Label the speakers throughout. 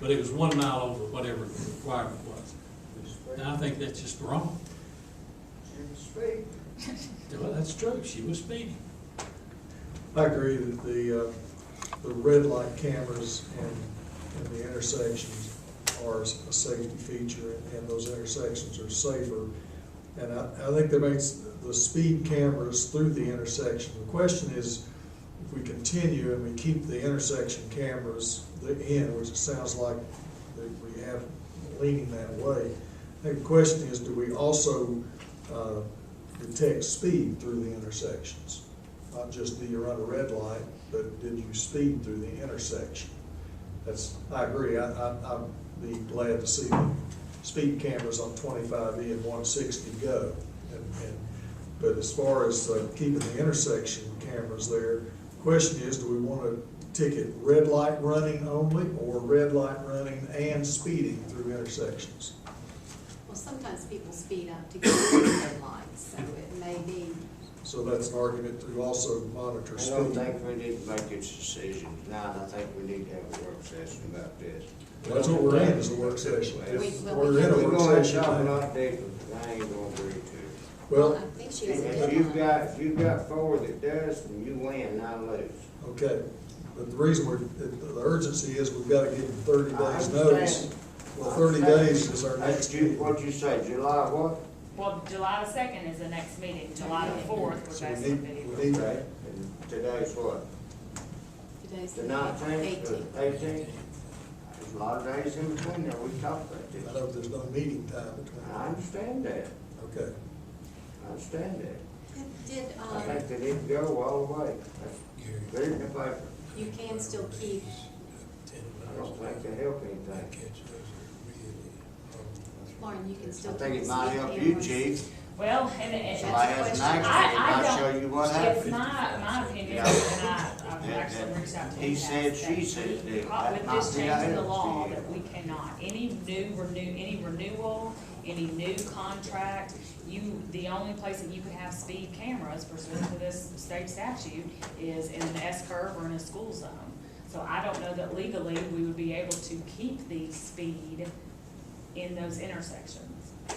Speaker 1: but it was one mile over whatever the requirement was. And I think that's just wrong. Well, that's true, she was speeding.
Speaker 2: I agree that the, uh, the red light cameras in, in the intersections are a safety feature, and those intersections are safer. And I, I think that makes the speed cameras through the intersection. The question is, if we continue and we keep the intersection cameras in, which it sounds like that we have leaning that way, I think the question is, do we also uh, detect speed through the intersections? Not just do you run a red light, but did you speed through the intersection? That's, I agree, I, I, I'd be glad to see the speed cameras on twenty-five E and one sixty go. And, and, but as far as uh, keeping the intersection cameras there, question is, do we want to ticket red light running only or red light running and speeding through intersections?
Speaker 3: Well, sometimes people speed up to get to the red lights, so it may be,
Speaker 2: So that's an argument to also monitor
Speaker 4: I
Speaker 2: speed.
Speaker 4: don't think we need to make this decision tonight, I think we need to have a work session about this.
Speaker 2: That's what we're in, is a work session.
Speaker 4: Well,
Speaker 3: We-
Speaker 4: If
Speaker 3: well,
Speaker 2: We're in a
Speaker 4: we're
Speaker 2: work
Speaker 4: gonna
Speaker 2: session.
Speaker 4: talk a lot different, I ain't gonna agree to.
Speaker 3: well,
Speaker 2: Well,
Speaker 3: I think she has a
Speaker 4: it. If you've
Speaker 3: deadline.
Speaker 4: got, if you've got four that does, then you win, I lose.
Speaker 2: okay, but the reason we're, the- the urgency is we've got to give them thirty
Speaker 4: I
Speaker 2: days notice.
Speaker 4: understand.
Speaker 2: Well, thirty days is our
Speaker 4: That's
Speaker 2: next
Speaker 4: Ju,
Speaker 2: meeting.
Speaker 4: what you say, July what?
Speaker 5: Well, July the second is the next meeting, July the fourth,
Speaker 2: So
Speaker 5: we're
Speaker 2: we
Speaker 5: basically
Speaker 2: need,
Speaker 5: bidding.
Speaker 2: we need,
Speaker 4: Okay, and today's what?
Speaker 3: Today's
Speaker 4: The
Speaker 3: the
Speaker 4: nineteenth,
Speaker 3: eighteenth.
Speaker 4: the eighteenth? There's a lot of days in between there, we talked about
Speaker 2: I
Speaker 4: this.
Speaker 2: know there's no meeting time between,
Speaker 4: I understand that,
Speaker 2: okay.
Speaker 4: I understand that.
Speaker 3: Did,
Speaker 4: I
Speaker 3: um,
Speaker 4: think they didn't go all the way. That's very in the paper.
Speaker 3: you can still keep,
Speaker 4: I don't think they help anything.
Speaker 3: Lauren, you can
Speaker 4: I
Speaker 3: still.
Speaker 4: think
Speaker 3: keep
Speaker 4: it
Speaker 3: the
Speaker 4: might
Speaker 3: speed
Speaker 4: help you,
Speaker 3: cameras.
Speaker 4: chief.
Speaker 5: Well, and it,
Speaker 4: Somebody has an
Speaker 3: I-
Speaker 4: accident,
Speaker 5: I
Speaker 4: I'll
Speaker 5: don't-
Speaker 4: show you what
Speaker 5: it's
Speaker 4: happened.
Speaker 5: my, my opinion,
Speaker 4: Yeah.
Speaker 5: and I, I've
Speaker 4: Yeah,
Speaker 5: actually
Speaker 4: yeah.
Speaker 5: reached out to him.
Speaker 4: He said,
Speaker 5: and
Speaker 4: she
Speaker 5: asked that
Speaker 4: said,
Speaker 5: we-
Speaker 4: dude,
Speaker 5: uh,
Speaker 4: that
Speaker 5: With
Speaker 4: might
Speaker 5: this
Speaker 4: be
Speaker 5: change in the
Speaker 4: helpful
Speaker 5: law,
Speaker 4: to you.
Speaker 5: that we cannot, any new renew, any renewal, any new contract, you, the only place that you could have speed cameras pursuant to this state statute is in an S curve or in a school zone. So I don't know that legally we would be able to keep the speed in those intersections.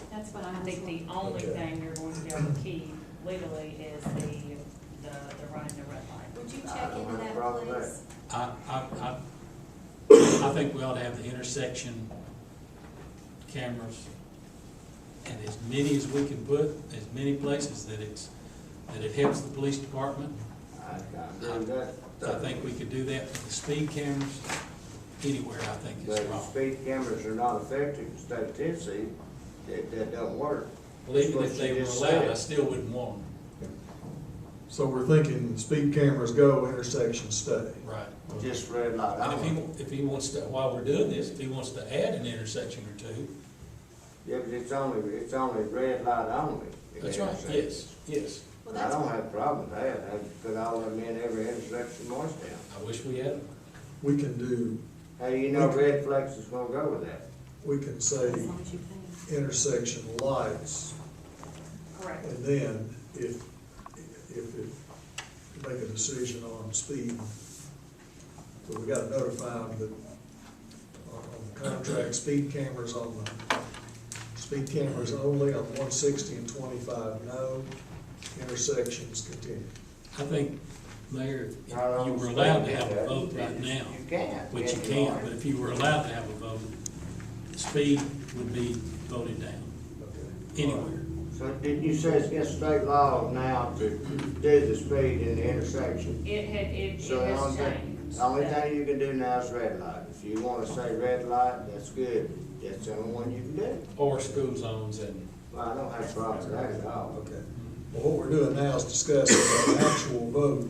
Speaker 3: That's what
Speaker 5: I
Speaker 3: I was.
Speaker 5: think the only
Speaker 2: Okay.
Speaker 5: thing you're going to be able to keep legally is the, the, the running the red light.
Speaker 3: Would you
Speaker 4: I
Speaker 3: check
Speaker 4: don't
Speaker 3: into
Speaker 4: have a
Speaker 3: that,
Speaker 4: problem with
Speaker 3: please?
Speaker 1: I, I, I, I think we ought to have the intersection cameras and as many as we can put, as many places that it's, that it helps the police department.
Speaker 4: I, I agree with that.
Speaker 1: I think we could do that with the speed cameras anywhere, I think
Speaker 4: But
Speaker 1: is
Speaker 4: if
Speaker 1: wrong.
Speaker 4: speed cameras are not effective in the state of Tennessee, that, that don't work.
Speaker 1: Well, even if
Speaker 4: What
Speaker 1: they
Speaker 4: you
Speaker 1: were
Speaker 4: just
Speaker 1: allowed, I
Speaker 4: said.
Speaker 1: still wouldn't want
Speaker 2: So we're thinking speed cameras go, intersections stay.
Speaker 1: them, right?
Speaker 4: Just red light
Speaker 1: And if he,
Speaker 4: on.
Speaker 1: wa- if he wants to, while we're doing this, if he wants to add an intersection or two,
Speaker 4: Yeah, but it's only, it's only red light only. in
Speaker 1: that's right,
Speaker 4: intersection.
Speaker 1: yes, yes.
Speaker 3: Well,
Speaker 4: I
Speaker 3: that's,
Speaker 4: don't have a problem with that, I put all of them in every intersection in Morristown.
Speaker 1: I wish we had them.
Speaker 2: We can do,
Speaker 4: How do you know red flags is gonna go with that?
Speaker 2: we can say
Speaker 3: as long as you can.
Speaker 2: intersection lights,
Speaker 5: Correct.
Speaker 2: and then if, if, if, make a decision on speed. But we gotta notify them that on on the contract, speed cameras on the, speed cameras only on one sixty and twenty-five, no, intersections continue.
Speaker 1: I think, Mayor, if you
Speaker 4: Our own
Speaker 1: were allowed to
Speaker 4: state
Speaker 1: have
Speaker 4: did
Speaker 1: a
Speaker 4: that.
Speaker 1: vote right
Speaker 4: You-
Speaker 1: now,
Speaker 4: You can't.
Speaker 1: which you
Speaker 4: Yeah,
Speaker 1: can,
Speaker 4: are.
Speaker 1: but if you were allowed to have a vote, speed would be voted down anywhere.
Speaker 4: So didn't you say it's against state law now to do the speed in the intersection?
Speaker 5: It had, it, it
Speaker 4: So the
Speaker 5: has
Speaker 4: only thing,
Speaker 5: changed.
Speaker 4: the only thing you can do now is red light. If you wanna say red light, that's good, that's the only one you can do.
Speaker 1: Or school zones and,
Speaker 4: Well, I don't have a problem with that at all.
Speaker 2: Okay, well, what we're doing now is discussing the actual vote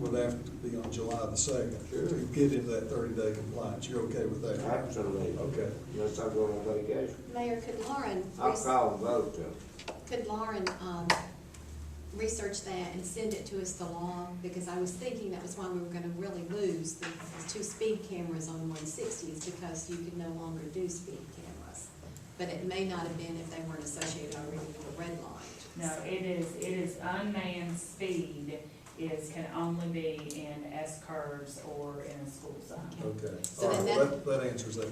Speaker 2: would have to be on July the second to get into that thirty-day compliance, you're okay with that?
Speaker 4: Absolutely,
Speaker 2: Okay,
Speaker 4: unless I go on vacation.
Speaker 3: Mayor, could Lauren,
Speaker 4: I'll
Speaker 3: res-
Speaker 4: call and vote though.
Speaker 3: could Lauren, um, research that and send it to us along? Because I was thinking that was why we were gonna really lose the the two speed cameras on one sixty is because you can no longer do speed cameras. But it may not have been if they weren't associated already with a red light.
Speaker 5: No, it is, it is unmanned speed is, can only be in S curves or in a school zone.
Speaker 2: okay,
Speaker 3: So
Speaker 2: all
Speaker 3: then
Speaker 2: right,
Speaker 3: that-
Speaker 2: that, that answers that